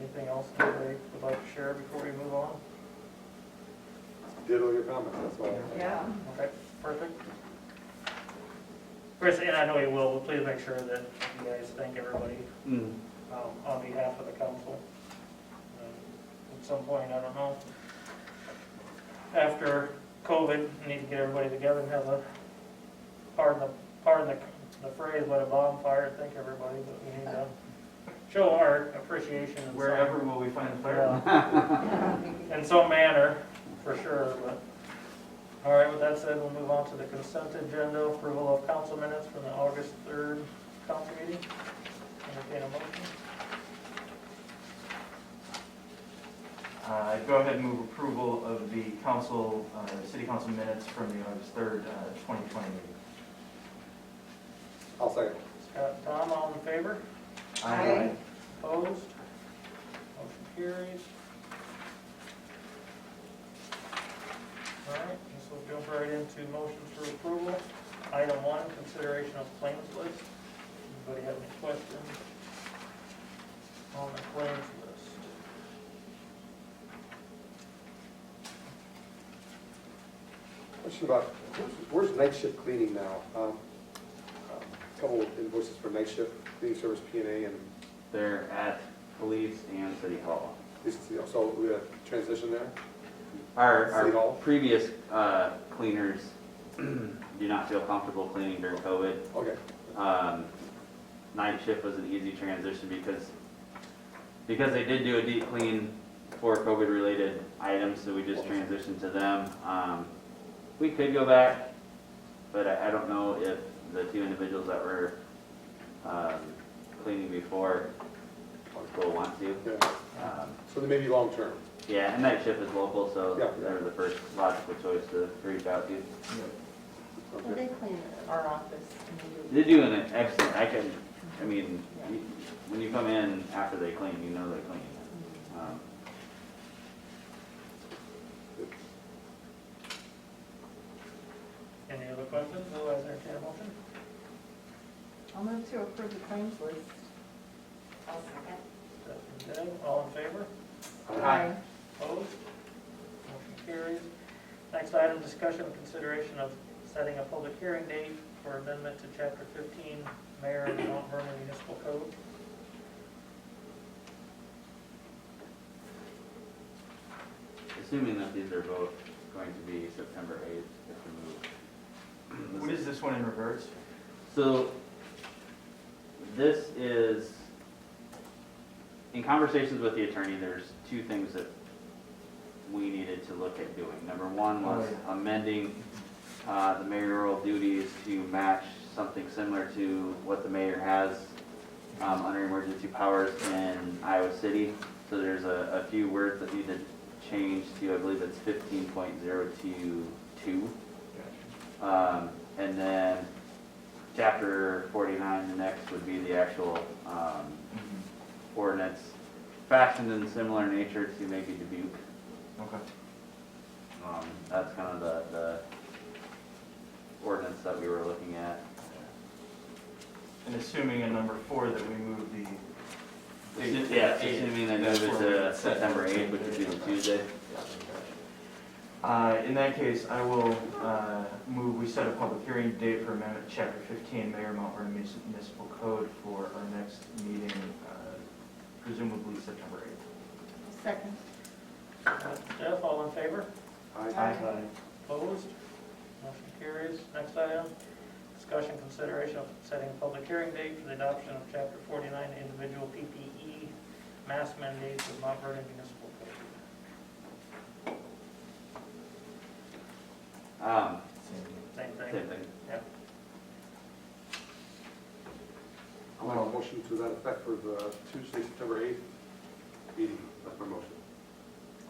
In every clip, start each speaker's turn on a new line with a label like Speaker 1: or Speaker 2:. Speaker 1: anything else anybody would like to share before we move on?
Speaker 2: Did all your comments, that's all.
Speaker 3: Yeah.
Speaker 1: Okay, perfect. Chris, and I know you will, but please make sure that you guys thank everybody um, on behalf of the council. Um, At some point, I don't know, after COVID, we need to get everybody together and have a, pardon the, pardon the- the phrase, let a bonfire, thank everybody, but we need to show our appreciation in some-
Speaker 4: Wherever will we find the fire?
Speaker 1: yeah, in some manner, for sure, but, all right, with that said, we'll move on to the consent agenda, approval of council minutes from the August 3rd council meeting. Entertain a motion.
Speaker 4: Uh, I'd go ahead and move approval of the council, uh, city council minutes from the August 3rd, uh, 2020 meeting.
Speaker 2: I'll second.
Speaker 1: Scott and Tom, all in favor?
Speaker 3: Aye.
Speaker 1: Opposed? Motion carries. All right, this will jump right into motions for approval. Item one, consideration of claims list. Anybody have any questions on the claims list?
Speaker 2: Question about, where's- where's night shift cleaning now? Um, a Couple of invoices for night shift, cleaning service, P and A, and
Speaker 5: They're at police and city hall.
Speaker 2: this, so we had transition there?
Speaker 5: Our,
Speaker 2: City
Speaker 5: our
Speaker 2: Hall?
Speaker 5: previous uh, cleaners do not feel comfortable cleaning during COVID.
Speaker 2: Okay,
Speaker 5: Um, Night shift was an easy transition because, because they did do a deep clean for COVID-related items, so we just transitioned to them. Um, We could go back, but I, I don't know if the two individuals that were um, cleaning before will want to.
Speaker 2: yeah,
Speaker 5: Um,
Speaker 2: so they may be long-term.
Speaker 5: Yeah, and night shift is local, so
Speaker 2: Yeah.
Speaker 5: they were the first logical choice to reach out to.
Speaker 3: Well,
Speaker 2: Okay.
Speaker 3: they clean our office. and we
Speaker 5: They're
Speaker 3: do-
Speaker 5: doing an excellent, I can, I mean, you- when you come in after they clean, you know they're clean. Um,
Speaker 1: Any other questions? Otherwise, entertain a motion.
Speaker 3: I'll move to approve the claims list. I'll second.
Speaker 1: Stephanie, Deb, all in favor?
Speaker 4: Aye.
Speaker 1: Opposed? Motion carries. Next item, discussion and consideration of setting a public hearing date for amendment to chapter fifteen, mayor of the Mount Vernon Municipal Code.
Speaker 5: Assuming that these are both going to be September 8th, if we
Speaker 4: What
Speaker 5: move.
Speaker 4: is this one in reverse?
Speaker 5: So this is, in conversations with the attorney, there's two things that we needed to look at doing. Number one was
Speaker 4: Oh,
Speaker 5: amending uh, the mayoral duties to match something similar to what the mayor has um, under emergency powers in Iowa City. So there's a, a few words that need to change to, I believe it's fifteen point zero two two. Um, and then chapter forty-nine, the next would be the actual, um,
Speaker 4: Mm-hmm.
Speaker 5: ordinance fashioned in similar nature to maybe Dubuque.
Speaker 4: Okay.
Speaker 5: Um, that's kind of the, the ordinance that we were looking at.
Speaker 4: And assuming in number four that we move the. the-
Speaker 5: Yeah, assuming they move it to
Speaker 4: That's where we-
Speaker 5: September eighth, which would be the Tuesday.
Speaker 4: Uh, In that case, I will uh, move, we set a public hearing date for amendment, to chapter 15, Mayor Mount Vernon Munici- Municipal Code for our next meeting, uh, presumably September 8th.
Speaker 3: Second.
Speaker 1: Jeff, all in favor?
Speaker 2: Aye.
Speaker 3: Aye.
Speaker 1: Opposed? Motion carries. Next item, discussion consideration of setting a public hearing date for the adoption of chapter forty-nine, individual PPE mask mandates of Mount Vernon Municipal Code.
Speaker 5: Um,
Speaker 1: Same
Speaker 5: same
Speaker 1: thing.
Speaker 5: thing.
Speaker 2: I'll make a motion to that effect for the Tuesday, September 8th meeting, that's my motion.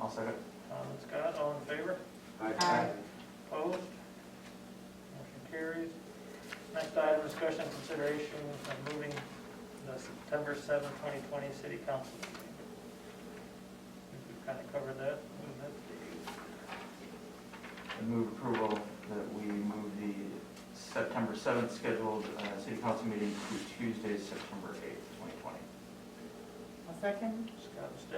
Speaker 4: I'll second.
Speaker 1: Tom and Scott, all in favor?
Speaker 3: Aye.
Speaker 1: Opposed? Motion carries. Next item, discussion and consideration of moving the September seventh, 2020 city council meeting. I think We've kind of covered that. Move that to
Speaker 4: I move approval that we move the September 7th scheduled uh, city council meeting to Tuesday, September 8th, 2020.
Speaker 3: I'll second.
Speaker 1: Scott and